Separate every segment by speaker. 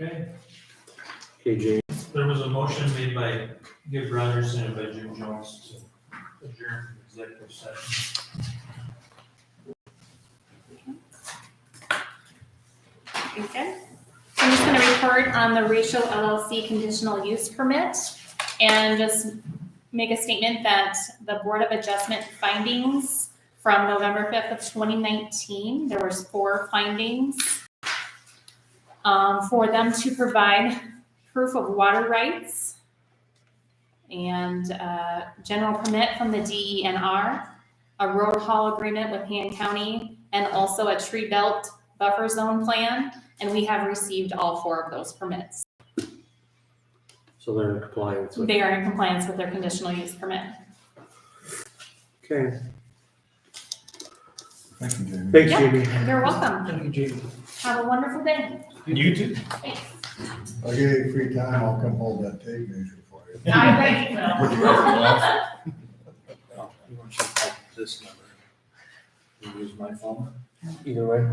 Speaker 1: Okay,
Speaker 2: Okay, Jamie,
Speaker 1: there was a motion made by Gibb Rogers and by Jim Jones to adjourn from executive session.
Speaker 3: Okay. So I'm just gonna report on the Ratio LLC conditional use permit and just make a statement that the Board of Adjustment findings from November fifth of twenty nineteen, there was four findings um, for them to provide proof of water rights and uh, general permit from the DENR, a road haul agreement with Han County, and also a tree belt buffer zone plan and we have received all four of those permits.
Speaker 2: so they're in compliance with,
Speaker 3: They are in compliance with their conditional use permit.
Speaker 2: okay,
Speaker 4: Thank you, Jamie.
Speaker 2: thanks
Speaker 3: Yeah.
Speaker 2: Jamie.
Speaker 3: You're welcome.
Speaker 2: Thank you, Jamie.
Speaker 3: Have a wonderful day.
Speaker 1: You too.
Speaker 3: Thanks.
Speaker 4: I'll give you free time, I'll come hold that tape measure for you.
Speaker 3: I bet you will.
Speaker 4: Put you over the line.
Speaker 5: You want you to call this number? You Use my phone?
Speaker 2: Either way.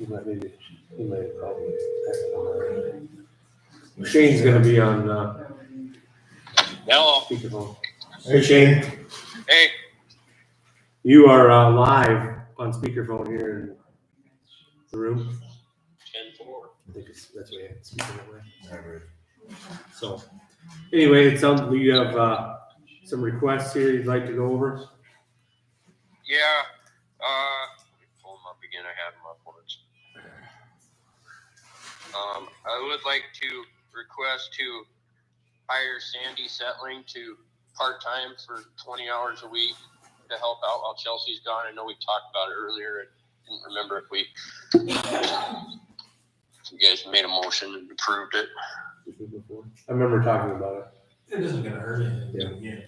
Speaker 2: You might maybe, you might have probably. Shane's gonna be on, uh,
Speaker 6: Hello.
Speaker 2: speakerphone.
Speaker 4: Hey,
Speaker 2: Shane.
Speaker 6: Hey,
Speaker 2: You are, uh, live on speakerphone here in the room.
Speaker 6: ten four.
Speaker 2: I think it's, that's what I had, speaking that way.
Speaker 4: Never.
Speaker 2: So, anyway, it sounds, we have, uh, some requests here you'd like to go over.
Speaker 6: Yeah. Uh, let me pull them up again. I had them up once. Um, I would like to request to hire Sandy Settling to part time for twenty hours a week to help out while Chelsea's gone. I know we talked about it earlier. I didn't remember if we you guys made a motion and approved it.
Speaker 2: I remember talking about it.
Speaker 1: It isn't gonna hurt
Speaker 2: Yeah.
Speaker 1: anything, yeah,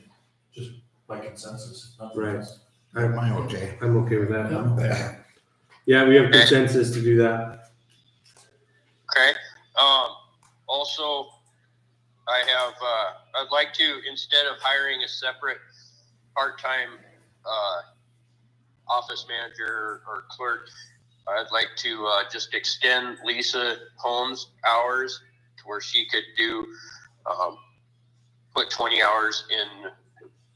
Speaker 1: just by consensus, nothing
Speaker 2: Right.
Speaker 1: else.
Speaker 4: Have mine, okay?
Speaker 2: I'm okay with that.
Speaker 4: I'm back.
Speaker 2: Yeah, we have consensus to do that.
Speaker 6: Okay. Um, also, I have, uh, I'd like to, instead of hiring a separate part-time, uh, office manager or clerk, I'd like to, uh, just extend Lisa Holmes' hours to where she could do, um, put twenty hours in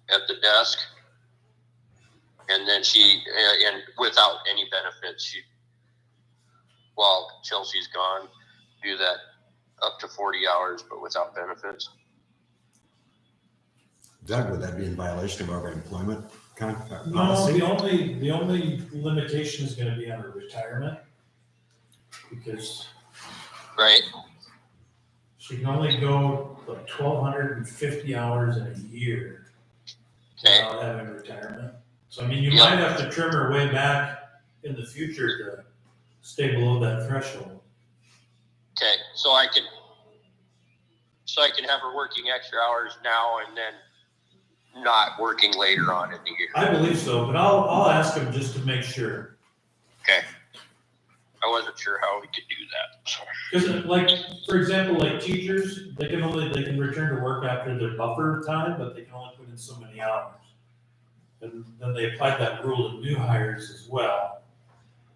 Speaker 6: at the desk. And then she, and- and without any benefits, she while Chelsea's gone, do that up to forty hours, but without benefits.
Speaker 4: Doug, would that be in violation of our employment contract
Speaker 1: No,
Speaker 4: policy?
Speaker 1: the only, the only limitation is gonna be on her retirement. Because
Speaker 6: Right.
Speaker 1: she can only go like twelve hundred and fifty hours in a year
Speaker 6: Okay.
Speaker 1: without having retirement. So I mean, you
Speaker 6: Yeah.
Speaker 1: might have to trim her way back in the future to stay below that threshold.
Speaker 6: Okay. So I can, so I can have her working extra hours now and then not working later on in the year.
Speaker 1: I believe so, but I'll, I'll ask him just to make sure.
Speaker 6: I wasn't sure how we could do that. so.
Speaker 1: Cause it- like, for example, like teachers, they can only, they can return to work after their buffer time, but they can only put in so many hours. And then they applied that rule to new hires as well.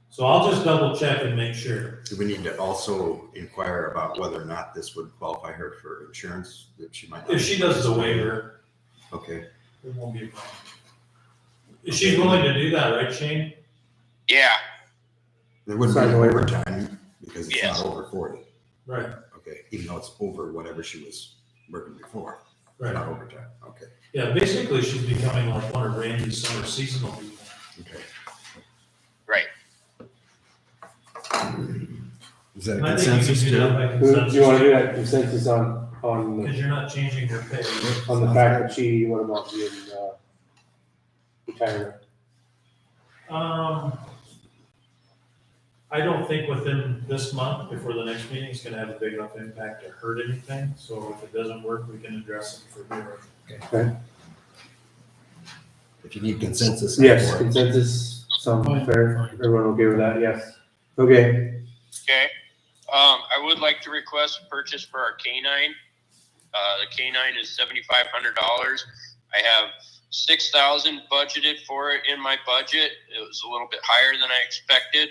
Speaker 1: So I'll just double check and make sure.
Speaker 4: Do we need to also inquire about whether or not this would qualify her for insurance that she might? not-
Speaker 1: If she does the waiver,
Speaker 4: Okay,
Speaker 1: it won't be a problem. If She's willing to do that, right, Shane?
Speaker 6: Yeah.
Speaker 4: there wouldn't
Speaker 2: Sign
Speaker 4: be
Speaker 2: the waiver.
Speaker 4: waiver time because it's
Speaker 6: Yes.
Speaker 4: not over forty,
Speaker 1: Right,
Speaker 4: okay, even though it's over whatever she was working before,
Speaker 1: right.
Speaker 4: not overtime, okay,
Speaker 1: Yeah, basically she's becoming like one of Randy's summer seasonal people.
Speaker 4: okay.
Speaker 6: Right.
Speaker 4: Is that a
Speaker 1: And I think you
Speaker 4: consensus
Speaker 1: can do that
Speaker 4: too?
Speaker 1: by
Speaker 2: Do you wanna
Speaker 1: consensus.
Speaker 2: do that consensus on, on,
Speaker 1: Because you're not changing your pay.
Speaker 2: on the fact that she, what about the, uh, retirement?
Speaker 1: Um, I don't think within this month, before the next meeting, it's gonna have a big enough impact to hurt anything, so if it doesn't work, we can address it for here.
Speaker 4: If you need consensus. I'm
Speaker 2: Yes,
Speaker 4: for it.
Speaker 2: consensus, sounds fair, everyone okay with that, yes. Okay,
Speaker 6: Okay. Um, I would like to request a purchase for our canine. Uh, the canine is seventy-five hundred dollars. I have six thousand budgeted for it in my budget. It was a little bit higher than I expected.